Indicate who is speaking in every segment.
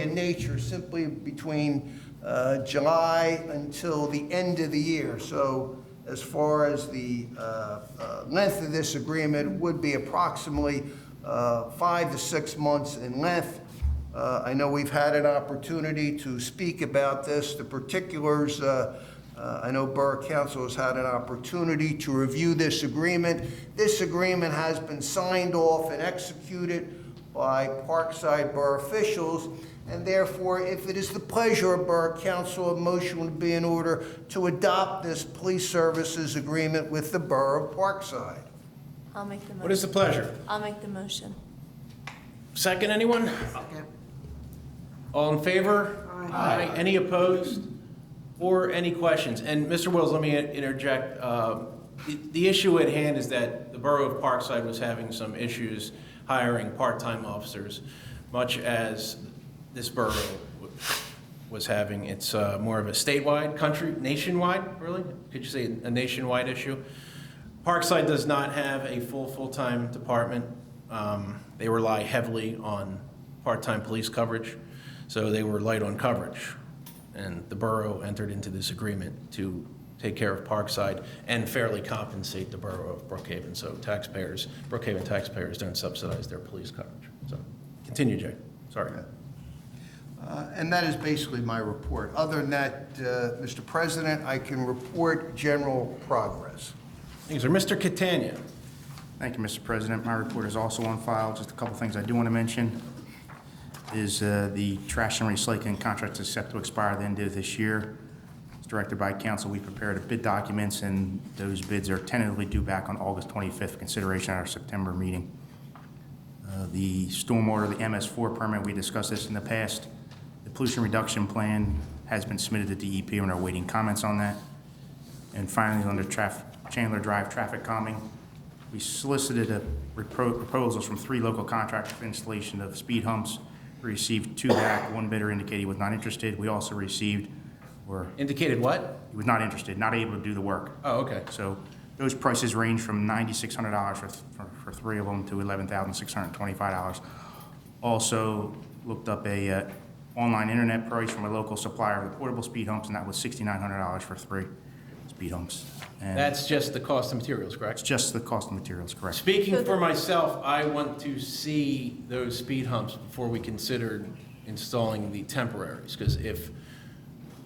Speaker 1: in nature simply between uh, July until the end of the year. So as far as the uh, uh, length of this agreement would be approximately uh, five to six months in length. Uh, I know we've had an opportunity to speak about this, the particulars. uh, uh, I know Borough Council has had an opportunity to review this agreement. This agreement has been signed off and executed by Parkside Borough officials, and therefore, if it is the pleasure of Borough Council, a motion would be in order to adopt this police services agreement with the Borough of Parkside.
Speaker 2: I'll make the motion.
Speaker 3: What is the pleasure?
Speaker 2: I'll make the motion.
Speaker 3: Second, anyone? All in favor? Aye. Any opposed? Or any questions? And Mr. Wills, let me interject. Uh, The the issue at hand is that the Borough of Parkside was having some issues hiring part-time officers, much as this borough w- was having. It's uh, more of a statewide, country, nationwide, really? Could you say a nationwide issue? Parkside does not have a full, full-time department. Um, They rely heavily on part-time police coverage, so they were light on coverage. And the borough entered into this agreement to take care of Parkside and fairly compensate the borough of Brookhaven, so taxpayers, Brookhaven taxpayers don't subsidize their police coverage. So, continue, Jay, sorry.
Speaker 1: Uh, And that is basically my report. Other than that, uh, Mr. President, I can report general progress.
Speaker 3: Thanks, sir. Mr. Catania,
Speaker 4: Thank you, Mr. President. My report is also on file. Just a couple things I do want to mention is uh, the trash and recycling contract is set to expire the end of this year. It's directed by council. We prepared bid documents, and those bids are tentatively due back on August 25th, for consideration at our September meeting. Uh, The stormwater, the MS4 permit, we discussed this in the past. The pollution reduction plan has been submitted to DEP, and are waiting comments on that. And finally, under traf- Chandler Drive traffic calming, we solicited a repro- proposals from three local contractors for installation of speed humps. We Received two back, one bidder indicated he was not interested. We also received, or
Speaker 3: indicated what?
Speaker 4: he was not interested, not able to do the work.
Speaker 3: Oh, okay.
Speaker 4: So those prices range from ninety-six hundred dollars for, for, for three of them to eleven thousand six hundred and twenty-five dollars. Also looked up a, uh, online internet price from a local supplier of the portable speed humps, and that was sixty-nine hundred dollars for three speed humps. And
Speaker 3: That's just the cost of materials, correct?
Speaker 4: it's just the cost of materials, correct?
Speaker 3: Speaking for myself, I want to see those speed humps before we consider installing the temporaries, because if,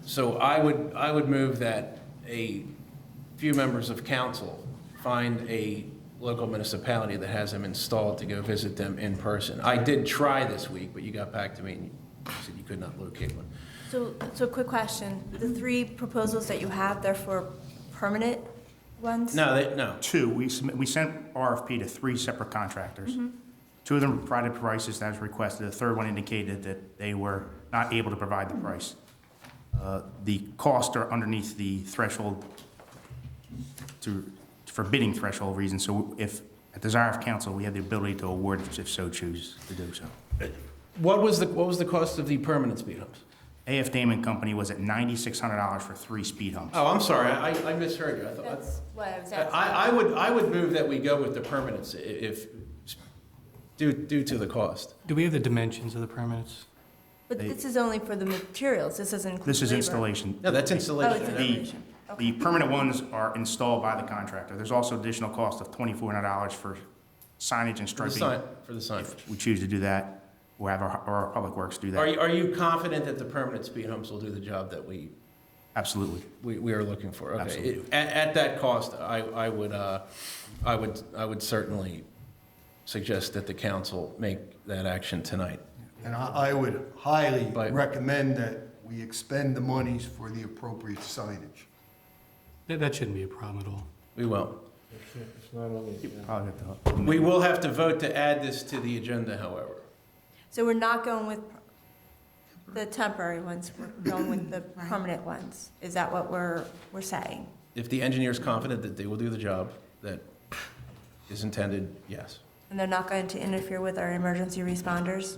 Speaker 3: so I would, I would move that a few members of council find a local municipality that has them installed to go visit them in person. I did try this week, but you got back to me and you said you could not locate one.
Speaker 2: So, so quick question. The three proposals that you have, they're for permanent ones?
Speaker 3: No, they, no,
Speaker 4: Two, we submit, we sent RFP to three separate contractors. Two of them provided prices as requested. The third one indicated that they were not able to provide the price. Uh, The costs are underneath the threshold to, for bidding threshold reasons. So if, at desire of council, we have the ability to award if so choose to do so.
Speaker 3: What was the, what was the cost of the permanent speed humps?
Speaker 4: AF Damon Company was at ninety-six hundred dollars for three speed humps.
Speaker 3: Oh, I'm sorry, I, I misheard you. I thought, I-
Speaker 2: That's what I was asking.
Speaker 3: I, I would, I would move that we go with the permanence i- if, due, due to the cost.
Speaker 5: Do we have the dimensions of the permits?
Speaker 2: But this is only for the materials. This doesn't include
Speaker 4: This is
Speaker 2: labor.
Speaker 4: installation.
Speaker 3: No, that's
Speaker 2: Oh, it's
Speaker 3: installation.
Speaker 4: The,
Speaker 2: installation. Okay.
Speaker 4: the permanent ones are installed by the contractor. There's also additional cost of twenty-four hundred dollars for signage and
Speaker 3: For the
Speaker 4: striping.
Speaker 3: sign, for the sign.
Speaker 4: We choose to do that, or have our, or our public works do
Speaker 3: Are
Speaker 4: that.
Speaker 3: you, are you confident that the permanent speed humps will do the job that we,
Speaker 4: Absolutely.
Speaker 3: we, we are looking for? Okay.
Speaker 4: Absolutely.
Speaker 3: It- At, at that cost, I, I would, uh, I would, I would certainly suggest that the council make that action tonight.
Speaker 6: And I, I would highly
Speaker 3: But-
Speaker 6: recommend that we expend the monies for the appropriate signage.
Speaker 5: That, that shouldn't be a problem at all.
Speaker 3: We will.
Speaker 4: Probably have to-
Speaker 3: We will have to vote to add this to the agenda, however.
Speaker 2: So we're not going with the temporary ones, we're going with the permanent ones? Is that what we're, we're saying?
Speaker 3: If the engineer is confident that they will do the job that is intended, yes.
Speaker 2: And they're not going to interfere with our emergency responders?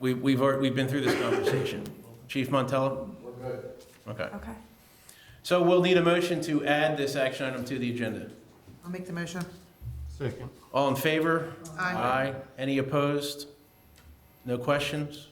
Speaker 3: We, we've, already- we've been through this conversation. Chief Montella? We're good. Okay.
Speaker 2: Okay.
Speaker 3: So we'll need a motion to add this action item to the agenda.
Speaker 7: I'll make the motion.
Speaker 5: Second.
Speaker 3: All in favor?
Speaker 7: Aye.
Speaker 3: Any opposed? No questions?